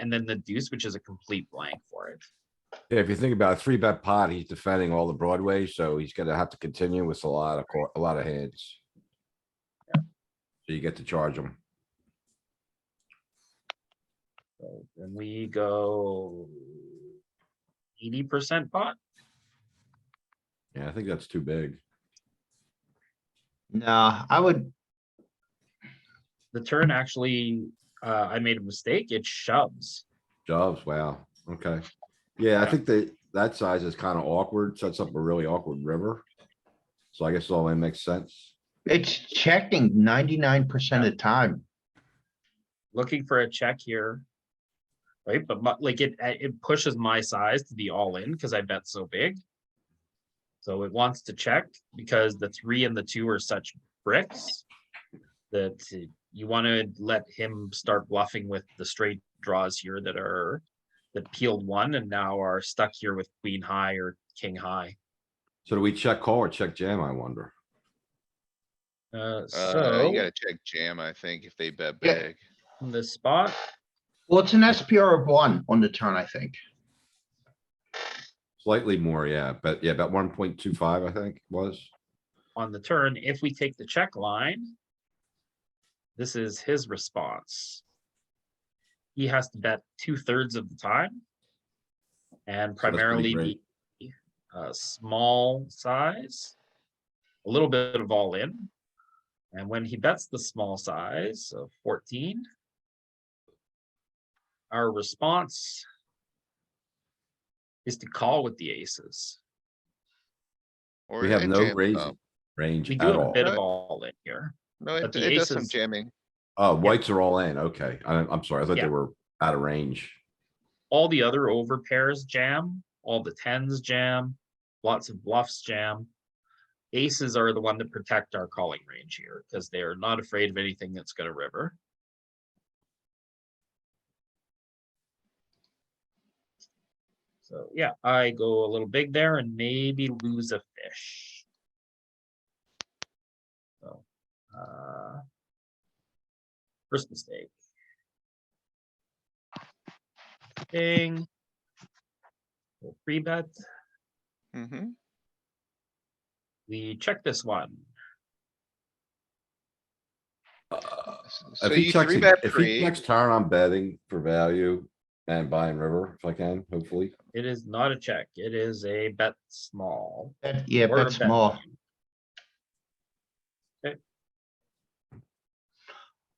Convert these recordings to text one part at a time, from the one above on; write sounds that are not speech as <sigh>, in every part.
and then the deuce, which is a complete blank for it. Yeah, if you think about it, three bet pot, he's defending all the Broadway, so he's gonna have to continue with a lot of, cor- a lot of hands. So you get to charge him. So then we go eighty percent pot. Yeah, I think that's too big. Nah, I would, The turn actually, uh, I made a mistake. It shoves. Jobs, wow, okay. Yeah, I think that, that size is kind of awkward, sets up a really awkward river. So I guess all that makes sense. it's checking ninety-nine percent of the time. Looking for a check here. Right, but mu- like it, uh, it pushes my size to be all in because I bet so big. So it wants to check because the three and the two are such bricks. That uh, you want to let him start bluffing with the straight draws here that are. That peeled one and now are stuck here with queen high or king high. So do we check call or check jam, I wonder? Uh, Uh, so you gotta check jam, I think, if they bet Yeah. big. in this spot, Well, it's an SPR of one on the turn, I think. Slightly more, yeah, but yeah, about one point two five, I think was. on the turn, if we take the check line, this is his response. He has to bet two thirds of the time. And pretty primarily great. be uh, small size, a little bit of all in. And when he bets the small size of fourteen, our response is to call with the aces. Or We have it no jam- raising oh, range uh, We do at have a all. bit of all in here. No, it but the it does some aces- jamming. Oh, whites are all in, okay. I'm, I'm sorry, I thought they Yeah. were out of range. all the other over pairs jam, all the tens jam, lots of bluffs jam. Aces are the one that protect our calling range here because they're not afraid of anything that's gonna river. So yeah, I go a little big there and maybe lose a fish. So, uh, first mistake. Thing. We'll Free bet, Mm-hmm. we check this one. Uh, So If he you checks, three ag- bet if he three, checks turn, I'm betting for value and buying river if I can, hopefully. It is not a check, it is a bet small. Bet- Yeah, or a bet small.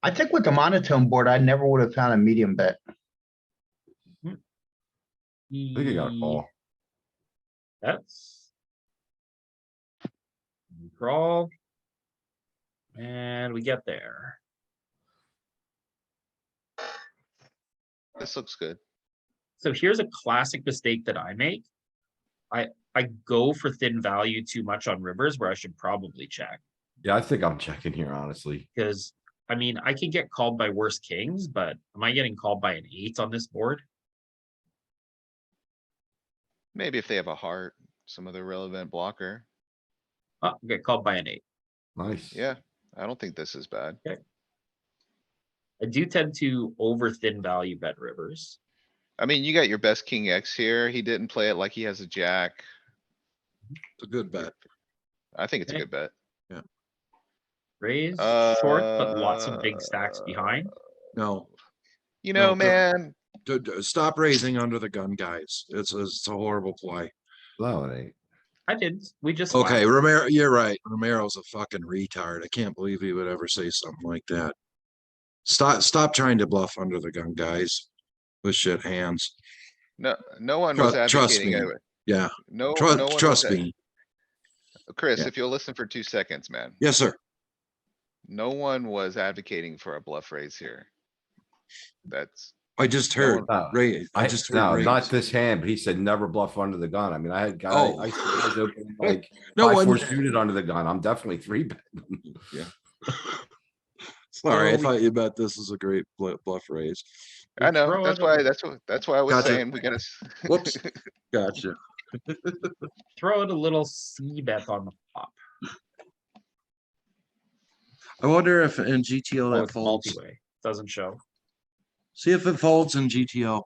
I think with the monotone board, I never would have found a medium bet. I think you got a Ye- call. That's. We Crawl. And we get there. this looks good. So here's a classic mistake that I make. I, I go for thin value too much on rivers where I should probably check. Yeah, I think I'm checking here, honestly. Because, I mean, I can get called by worse kings, but am I getting called by an eight on this board? Maybe if they have a heart, some other relevant blocker. Oh, I get called by an eight. Nice. Yeah, I don't think this is bad. I do tend to over thin value bet rivers. I mean, you got your best king X here. He didn't play it like he has a jack. It's a good bet. I think it's a Okay. good bet. Raise short, but lots of big stacks behind. No, You No, know, no. man, d- d- stop raising under the gun, guys. It's, a- it's a horrible play. No, it ain't. I didn't. We just. Okay, slapped. Romero, you're right. Romero's a fucking retard. I can't believe he would ever say something like that. Stop, stop trying to bluff under the gun, guys. With shit hands. no, no one was Tru- trust advocating. me. it. Yeah, No, no one trust, was trust ad- me. Chris, Yeah. if you'll listen for two seconds, man. Yes, sir. No one was advocating for a bluff raise here. That's, I just No one- heard, No. Ray, I I- just No, heard. not raise. this hand, but he said never bluff under the gun. I mean, I had guys, Oh. I see guys <laughs> open like No five, four one, suited under the gun. I'm definitely three <laughs> bet. <laughs> sorry, I Oh. thought you bet this is a great blu- bluff raise. I know, throw that's it why, away. that's what, that's why I was Gotcha. saying, we gotta. s- <laughs> Whoops. Gotcha. Throw out a little C bet on the flop. I wonder if in GTO Oh, that it's folds. Oh, multi-way. Doesn't show. See if it folds in GTO.